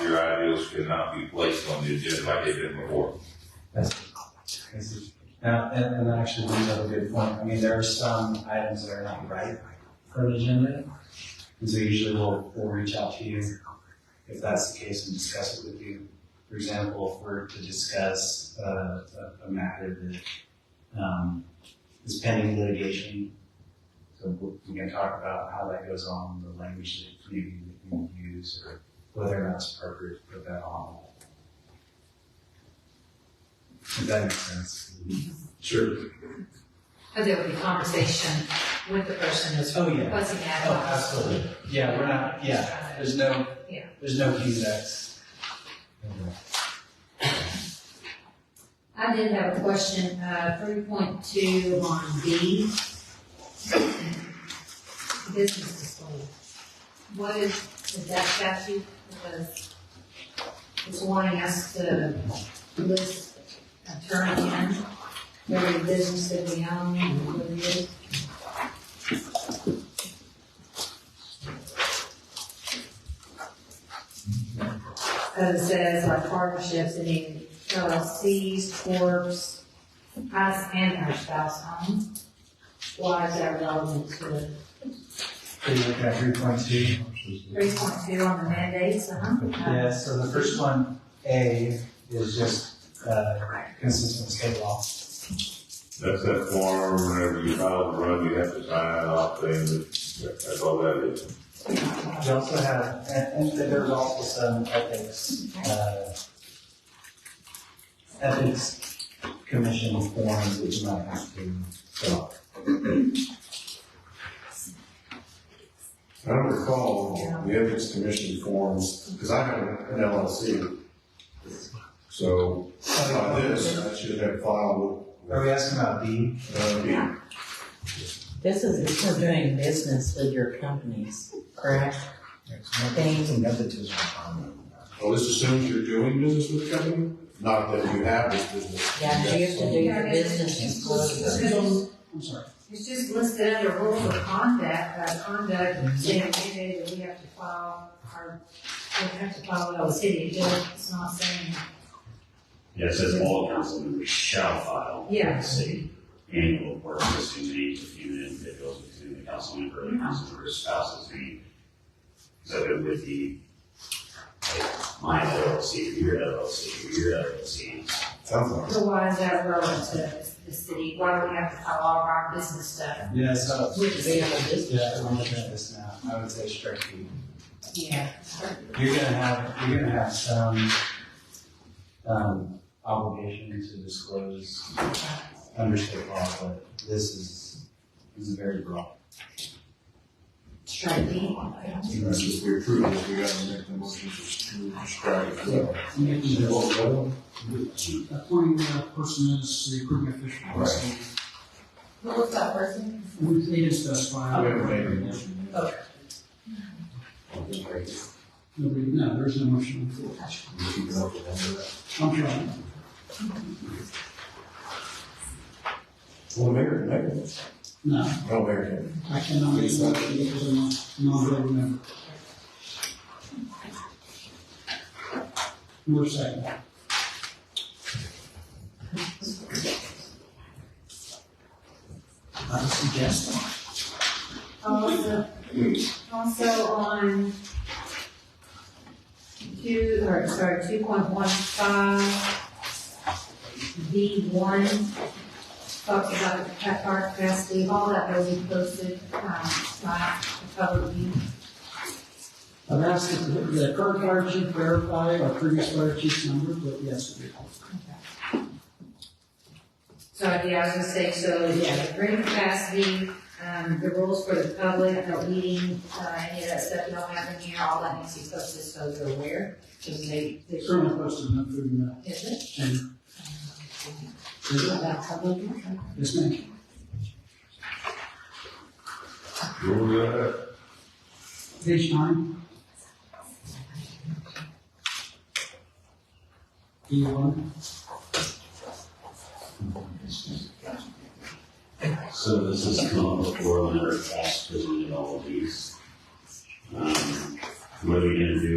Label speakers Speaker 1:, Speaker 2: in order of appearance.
Speaker 1: bills could not be placed on the agenda like they've been before.
Speaker 2: Now, and, and actually brings up a good point. I mean, there are some items that are not right for the agenda. And so usually we'll, we'll reach out to you if that's the case and discuss it with you. For example, if we're to discuss, uh, a, a matter that, um, is pending litigation. So we- we can talk about how that goes on, the language that maybe we can use or whether or not it's appropriate to put that on. If that makes sense.
Speaker 1: Sure.
Speaker 3: But there would be conversation with the person who's
Speaker 2: Oh, yeah.
Speaker 3: requesting ad
Speaker 2: Oh,
Speaker 3: hoc.
Speaker 2: absolutely. Yeah, we're not, yeah, there's no,
Speaker 3: Yeah.
Speaker 2: there's no Q's and X's.
Speaker 3: I did have a question, uh, three point two on B. Business display. What is, is that statute? Because it's wanting us to list and turn in every business that we own and what it is. Cause it says like partnerships, and even LLCs, corps, us and our spouse own. Why is that relevant to
Speaker 2: Pretty look at three point two.
Speaker 3: three point two on the mandates, uh-huh?
Speaker 2: Yeah, so the first one, A, is just, uh, consistent state law.
Speaker 1: That's that form, whenever you file the run, you have to sign it off, saying that, that's all that is.
Speaker 2: We also have, and, and there's also some ethics, uh, ethics commission forms that you might have to fill out.
Speaker 4: I don't recall the ethics commission forms, because I have an LLC. So, by this, I should have filed,
Speaker 2: Are we asking about B?
Speaker 4: uh, the-
Speaker 5: This is if we're doing business with your companies, correct?
Speaker 2: It's a nepotism
Speaker 4: well, this assumes you're doing business with the company, not that you have this business.
Speaker 5: Yeah, you have to do your
Speaker 3: Yeah, it's
Speaker 5: business
Speaker 3: just-
Speaker 5: disclosure.
Speaker 2: I'm sorry.
Speaker 3: It's just listed under rules of conduct, uh, conduct, saying mandated that we have to file our, we have to file with the city, it's not saying,
Speaker 6: Yeah, it says all council members shall file.
Speaker 3: Yeah.
Speaker 6: with the City annual report listing the names of human individuals within the council member, or the council member's spouse's name. So it would be like, my LLC, your LLC, your LLC.
Speaker 4: Sounds like.
Speaker 3: so why is that relevant to the city? Why do we have to file all of our business stuff
Speaker 2: Yeah, so,
Speaker 3: with the
Speaker 5: We
Speaker 3: city?
Speaker 5: have a business.
Speaker 2: yeah, I'm looking at this now, I would say strike B.
Speaker 3: Yeah.
Speaker 2: You're gonna have, you're gonna have some, um, obligation to disclose under state law, but this is, this is very broad.
Speaker 3: Strike B.
Speaker 4: You know, if we approve this, we gotta make the motion to prescribe it.
Speaker 7: Appointing that person as the approving official.
Speaker 4: Right.
Speaker 3: Who was that person?
Speaker 7: We uh, need to specify.
Speaker 4: We haven't made a motion yet.
Speaker 7: Nobody, no, there's no motion on the floor.
Speaker 4: We keep it up with them.
Speaker 7: I'm trying.
Speaker 4: Well, Mayor, Mayor,
Speaker 7: No,
Speaker 4: no, Mayor can.
Speaker 7: I cannot make a motion because I'm not, not a voting member. More second.
Speaker 2: I suggest.
Speaker 3: Also, also on two, or sorry, two point one five, B one, talks about the pet park capacity, all that will be posted, um, by the public.
Speaker 7: I've asked the, the current fire chief verify our previous fire chief's number, but yes,
Speaker 3: So, yeah, I was gonna say, so, yeah, the green capacity, um, the rules for the public, no eating, uh, any of that stuff, no having here, all that needs to be posted, so they're aware, because they, they.
Speaker 7: it's currently posted, not food in that.
Speaker 3: Is it?
Speaker 7: chamber. Is it?
Speaker 3: About public, okay.
Speaker 7: Yes, ma'am.
Speaker 1: Rule that.
Speaker 7: Page nine. E one.
Speaker 6: So this has come before, and they're asked to do all of these. Um, What are we gonna do